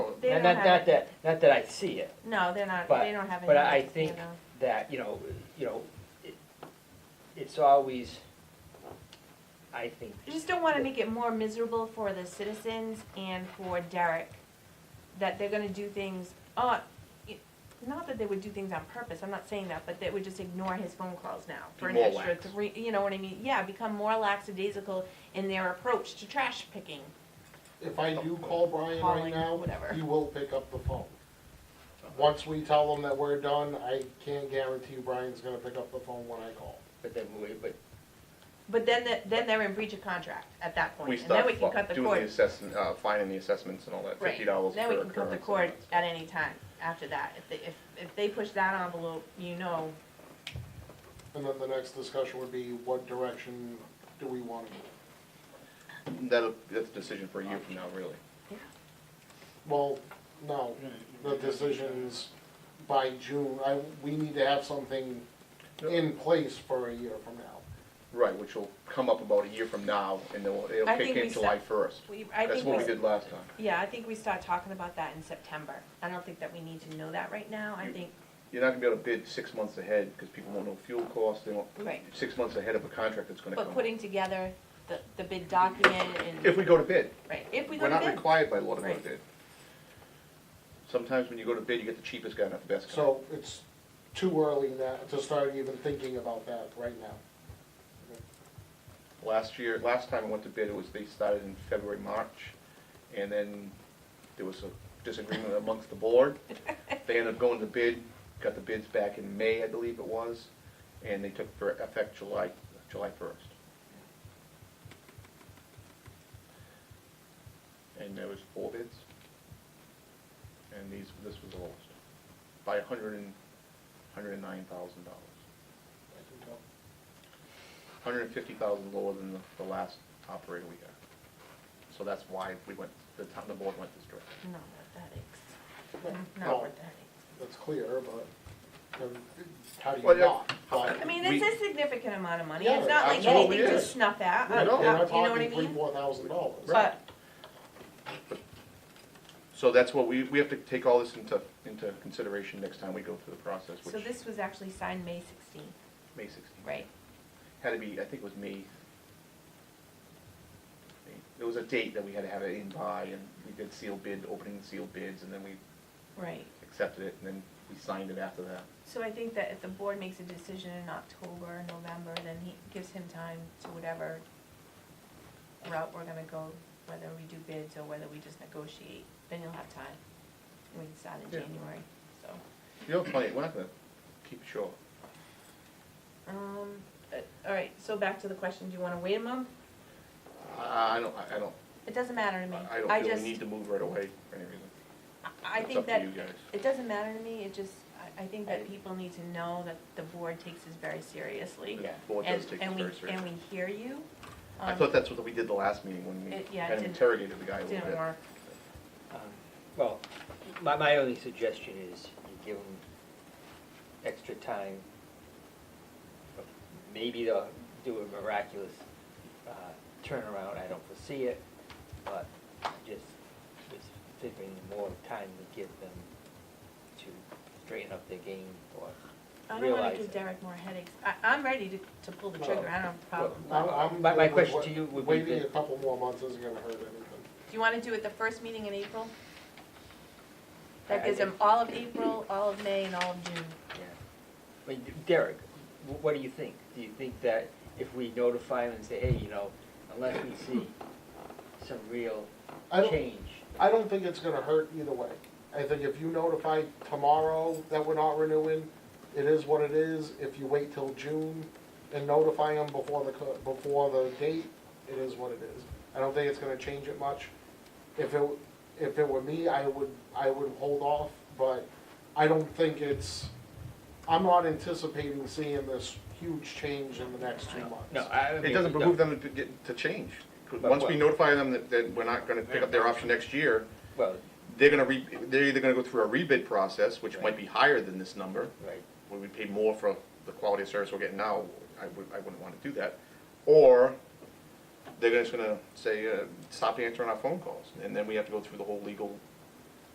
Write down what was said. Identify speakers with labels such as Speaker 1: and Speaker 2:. Speaker 1: They
Speaker 2: Not,
Speaker 1: don't
Speaker 2: not,
Speaker 1: have
Speaker 2: not
Speaker 1: it.
Speaker 2: that, not that I see it,
Speaker 1: No, they're not,
Speaker 2: But-
Speaker 1: they don't have any.
Speaker 2: but I
Speaker 1: you
Speaker 2: think-
Speaker 1: know.
Speaker 2: that, you know, you know, it, it's always, I think,
Speaker 1: I just don't wanna make it more miserable for the citizens and for Derek, that they're gonna do things, uh, it- not that they would do things on purpose, I'm not saying that, but they would just ignore his phone calls now for an
Speaker 2: Be more
Speaker 1: extra
Speaker 2: lax.
Speaker 1: three, you know what I mean? Yeah, become more lackadaisical in their approach to trash picking,
Speaker 3: If I do call Brian
Speaker 1: Calling,
Speaker 3: right now,
Speaker 1: whatever.
Speaker 3: he will pick up the phone. Once we tell him that we're done, I can't guarantee you Brian's gonna pick up the phone when I call.
Speaker 2: but then, we- but
Speaker 1: But then, the- then they're in breach of contract at that
Speaker 4: We
Speaker 1: point, and then
Speaker 4: start
Speaker 1: we can cut
Speaker 4: fu-
Speaker 1: the
Speaker 4: doing the
Speaker 1: cord.
Speaker 4: assessment, uh, finding the assessments and all that,
Speaker 1: Right.
Speaker 4: fifty dollars per
Speaker 1: Then we
Speaker 4: occurrence.
Speaker 1: can cut the
Speaker 4: and
Speaker 1: cord
Speaker 4: all
Speaker 1: at
Speaker 4: that
Speaker 1: any time after that. If they, if, if they push that envelope, you know,
Speaker 3: And then the next discussion would be, what direction do we wanna go?
Speaker 4: stuff. That'll, that's a decision for a year from now, really.
Speaker 3: Well, no, the decision's by June, I, we need to have something in place for a year from now.
Speaker 4: Right, which will come up about a year from now, and then it'll
Speaker 1: I
Speaker 4: kick
Speaker 1: think we
Speaker 4: in July
Speaker 1: set-
Speaker 4: first.
Speaker 1: we, I
Speaker 4: That's
Speaker 1: think we,
Speaker 4: what we
Speaker 1: s-
Speaker 4: did last time.
Speaker 1: yeah, I think we start talking about that in September. I don't think that we need to know that right now. I
Speaker 4: You-
Speaker 1: think,
Speaker 4: You're not gonna be able to bid six months ahead, because people won't know fuel costs, they won't,
Speaker 1: Right.
Speaker 4: six months ahead of a contract that's gonna come
Speaker 1: but
Speaker 4: up.
Speaker 1: putting together the, the bid document
Speaker 4: If
Speaker 1: and,
Speaker 4: we go to bid,
Speaker 1: right, if we go
Speaker 4: we're
Speaker 1: to
Speaker 4: not
Speaker 1: bid.
Speaker 4: required by law to go to
Speaker 1: Right.
Speaker 4: bid. Sometimes when you go to bid, you get the cheapest guy, not the best guy.
Speaker 3: So it's too early now to start even thinking about that right now.
Speaker 4: Last year, last time I went to bid, it was, they started in February, March, and then there was a disagreement amongst the board. They ended up going to bid, got the bids back in May, I believe it was, and they took for effect July, July first. And there was four bids. And these, this was the lowest, by a hundred and, hundred and nine thousand dollars
Speaker 3: I can tell.
Speaker 4: hundred and fifty thousand lower than the, the last operator we had. So that's why we went, the town, the board went this direction.
Speaker 1: Not worth that
Speaker 3: Right.
Speaker 1: aches.
Speaker 3: No.
Speaker 4: Oh.
Speaker 1: Not worth that aches.
Speaker 3: That's clear, but, um, how do
Speaker 4: Well,
Speaker 3: you
Speaker 4: yeah.
Speaker 3: not? But
Speaker 1: I mean,
Speaker 4: We-
Speaker 1: it's a significant amount of money.
Speaker 3: Yeah,
Speaker 1: It's not like
Speaker 3: absolutely
Speaker 1: anything to
Speaker 4: is.
Speaker 1: snuff at, uh,
Speaker 3: We're not, we're
Speaker 1: uh, you know
Speaker 3: not
Speaker 1: what I
Speaker 3: talking three,
Speaker 1: mean?
Speaker 3: four thousand dollars.
Speaker 1: But,
Speaker 4: So that's what we, we have to take all this into, into consideration next time we go through the process,
Speaker 1: so
Speaker 4: which,
Speaker 1: this was actually signed May sixteenth,
Speaker 4: May sixteenth.
Speaker 1: right?
Speaker 4: Had to be, I think it was May. There was a date that we had to have it in by, and we did sealed bid, opening sealed bids, and then we
Speaker 1: Right.
Speaker 4: accepted it, and then we signed it after that.
Speaker 1: So I think that if the board makes a decision in October, November, then he gives him time to whatever route we're gonna go, whether we do bids or whether we just negotiate, then you'll have time. We can start in
Speaker 4: Yeah.
Speaker 1: January, so,
Speaker 4: You know, plenty, we're not gonna keep it short.
Speaker 1: um, but, all right, so back to the question, do you wanna wait a month?
Speaker 4: I, I don't, I I don't,
Speaker 1: It doesn't matter to me.
Speaker 4: I don't feel
Speaker 1: just-
Speaker 4: we need to move right away for any reason.
Speaker 1: I I
Speaker 4: It's
Speaker 1: think
Speaker 4: up to
Speaker 1: that,
Speaker 4: you guys.
Speaker 1: it doesn't matter to me, it just, I, I think
Speaker 4: I-
Speaker 1: that people need to know that the board takes this very seriously.
Speaker 4: The board
Speaker 1: and-
Speaker 4: does take
Speaker 1: and
Speaker 4: this
Speaker 1: we-
Speaker 4: very seriously.
Speaker 1: And we hear you.
Speaker 4: I
Speaker 1: um,
Speaker 4: thought that's what we did the last meeting when we
Speaker 1: It- yeah, it
Speaker 4: kind of
Speaker 1: didn't-
Speaker 4: interrogated the guy a little bit.
Speaker 1: Didn't work.
Speaker 2: Um, Well, my, my only suggestion is you give them extra time. Maybe they'll do a miraculous uh, turnaround, I don't foresee it, but I just, just figuring the more time we give them to straighten up their game or
Speaker 1: I don't wanna
Speaker 2: realize
Speaker 1: give
Speaker 2: it.
Speaker 1: Derek more headaches. I, I'm ready to, to pull the trigger, I don't have a problem.
Speaker 3: I'm- I'm
Speaker 2: My- my
Speaker 3: good with
Speaker 2: question
Speaker 3: what-
Speaker 2: to you would be
Speaker 3: Waiting
Speaker 2: that-
Speaker 3: a couple more months isn't gonna hurt anything.
Speaker 1: Do you wanna do it the first meeting in April?
Speaker 2: I-
Speaker 1: That
Speaker 2: I
Speaker 1: gives him
Speaker 2: think-
Speaker 1: all of April, all of May, and all of June.
Speaker 2: Yeah. I mean, Derek, wh- what do you think? Do you think that if we notify them and say, hey, you know, unless we see some real
Speaker 3: I don't-
Speaker 2: change?
Speaker 3: I don't think it's gonna hurt either way. I think if you notify tomorrow that we're not renewing, it is what it is. If you wait till June and notify them before the, co- before the date, it is what it is. I don't think it's gonna change it much. If it, if it were me, I would, I would hold off, but I don't think it's, I'm not anticipating seeing this huge change in the next two months.
Speaker 2: No, I I mean.
Speaker 4: It doesn't
Speaker 2: no.
Speaker 4: behoove them to get, to change. 'Cause
Speaker 2: But
Speaker 4: Once we
Speaker 2: what-
Speaker 4: notify them that, that we're not gonna pick up their option next year,
Speaker 2: Well,
Speaker 4: they're gonna re, they're either gonna go through a rebid process, which
Speaker 2: Right.
Speaker 4: might be higher than this number,
Speaker 2: right.
Speaker 4: where we pay more for the quality of service we're getting now, I would, I wouldn't wanna do that. Or they're just gonna say, uh, stop answering our phone calls, and then we have to go through the whole legal